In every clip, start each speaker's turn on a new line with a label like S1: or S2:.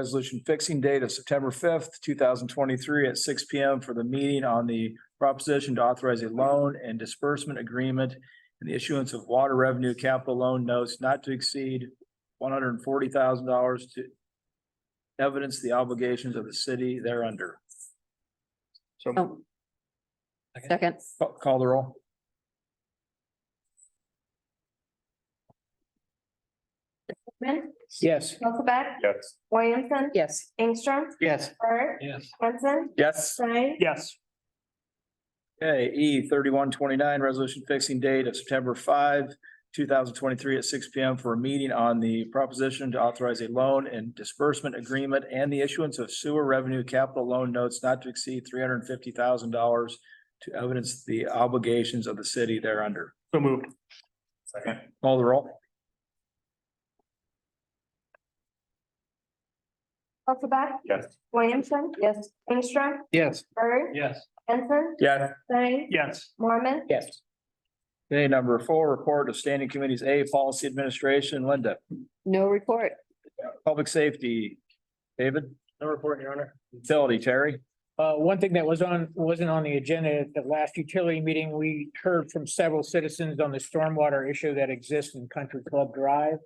S1: Resolution fixing date of September fifth, two thousand twenty-three at six P M for the meeting on the proposition to authorize a loan and disbursement agreement and the issuance of water revenue capital loan notes not to exceed one hundred and forty thousand dollars to evidence the obligations of the city thereunder. So
S2: Oh. Second,
S1: ca- call the roll.
S3: Hickman,
S1: Yes.
S3: Elizabeth,
S4: Yes.
S3: Williamson,
S2: yes,
S3: Ingstrom,
S4: Yes.
S3: Bird,
S4: Yes.
S3: Henson,
S1: Yes.
S3: Stein,
S4: Yes.
S1: Okay, E thirty-one twenty-nine, resolution fixing date of September five, two thousand twenty-three at six P M for a meeting on the proposition to authorize a loan and disbursement agreement and the issuance of sewer revenue capital loan notes not to exceed three hundred and fifty thousand dollars to evidence the obligations of the city thereunder.
S4: So moved. Second.
S1: Call the roll.
S3: Elizabeth,
S4: Yes.
S3: Williamson,
S2: yes,
S3: Ingstrom,
S4: Yes.
S3: Bird,
S4: Yes.
S3: Henson,
S1: Yeah.
S3: Stein,
S4: Yes.
S3: Mormon,
S1: Yes. Okay, number four, report of standing committees, A, policy administration, Linda,
S2: no report,
S1: public safety, David,
S5: No report, Your Honor.
S1: utility, Terry.
S5: Uh, one thing that was on, wasn't on the agenda at the last utility meeting, we heard from several citizens on the stormwater issue that exists in Country Club Drive.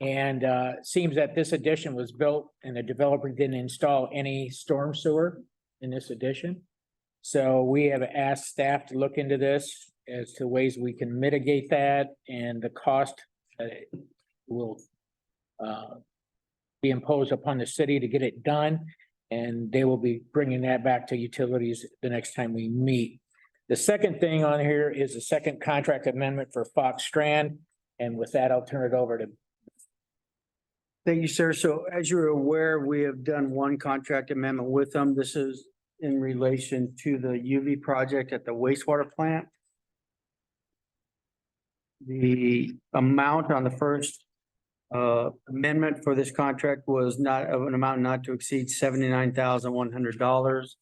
S5: And uh, it seems that this addition was built and the developer didn't install any storm sewer in this addition. So we have asked staff to look into this as to ways we can mitigate that and the cost that it will uh, be imposed upon the city to get it done. And they will be bringing that back to utilities the next time we meet. The second thing on here is the second contract amendment for Fox Strand. And with that, I'll turn it over to
S6: Thank you, sir. So as you're aware, we have done one contract amendment with them. This is in relation to the UV project at the wastewater plant. The amount on the first uh, amendment for this contract was not of an amount not to exceed seventy-nine thousand one hundred dollars.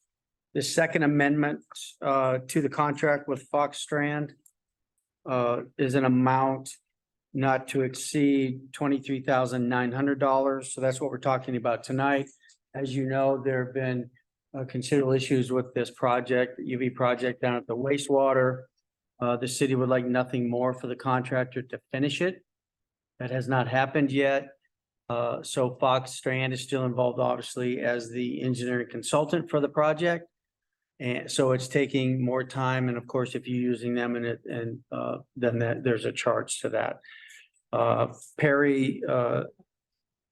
S6: The second amendment uh, to the contract with Fox Strand uh, is an amount not to exceed twenty-three thousand nine hundred dollars. So that's what we're talking about tonight. As you know, there have been uh, considerable issues with this project, the UV project down at the wastewater. Uh, the city would like nothing more for the contractor to finish it. That has not happened yet. Uh, so Fox Strand is still involved, obviously, as the engineering consultant for the project. And so it's taking more time. And of course, if you're using them and it, and, uh, then that, there's a charge to that. Uh, Perry, uh,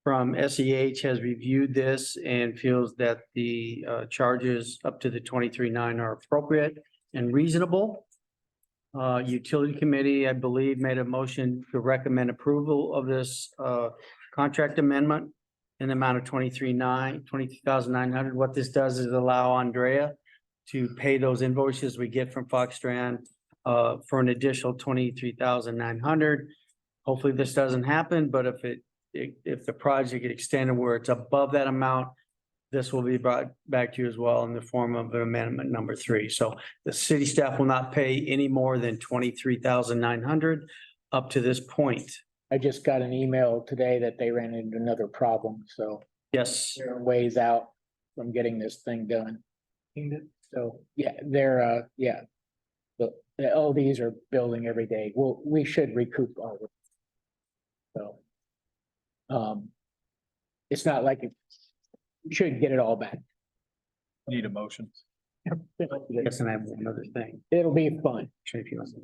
S6: from SEH has reviewed this and feels that the, uh, charges up to the twenty-three nine are appropriate and reasonable. Uh, utility committee, I believe, made a motion to recommend approval of this, uh, contract amendment in the amount of twenty-three nine, twenty-three thousand nine hundred. What this does is allow Andrea to pay those invoices we get from Foxtrend, uh, for an additional twenty-three thousand nine hundred. Hopefully this doesn't happen, but if it, if, if the project get extended where it's above that amount, this will be brought back to you as well in the form of an amendment number three. So the city staff will not pay any more than twenty-three thousand nine hundred up to this point.
S5: I just got an email today that they ran into another problem, so
S6: Yes,
S5: there are ways out from getting this thing done. So, yeah, they're, uh, yeah. The, the LDs are building every day. Well, we should recoup all of it. So. Um. It's not like it. we Should get it all back.
S1: Need a motion.
S6: yes, and I have one other thing.
S5: It'll be fun.
S6: Shane, if you want to-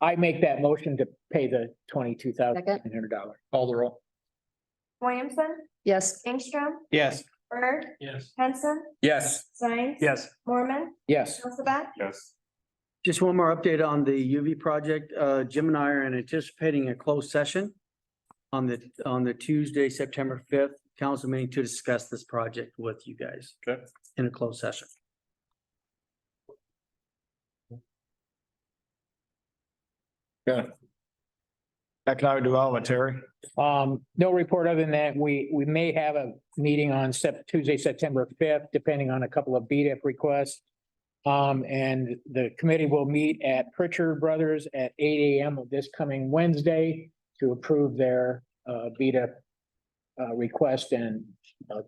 S5: I make that motion to pay the twenty-two thousand nine hundred dollars.
S1: Call the roll.
S3: Williamson,
S2: yes,
S3: Ingstrom,
S6: Yes.
S3: Bird,
S4: Yes.
S3: Henson,
S1: Yes.
S3: Stein,
S4: Yes.
S3: Mormon,
S5: Yes,
S3: Elizabeth,
S4: Yes.
S6: Just one more update on the UV project. Uh, Jim and I are anticipating a closed session on the, on the Tuesday, September fifth, council meeting to discuss this project with you guys.
S4: Okay.
S6: In a closed session.
S1: Economic Development, Terry.
S5: um, no report other than that, we, we may have a meeting on Sep- Tuesday, September fifth, depending on a couple of BDF requests. Um, and the committee will meet at Pritchard Brothers at eight AM of this coming Wednesday to approve their, uh, BDF uh, E request and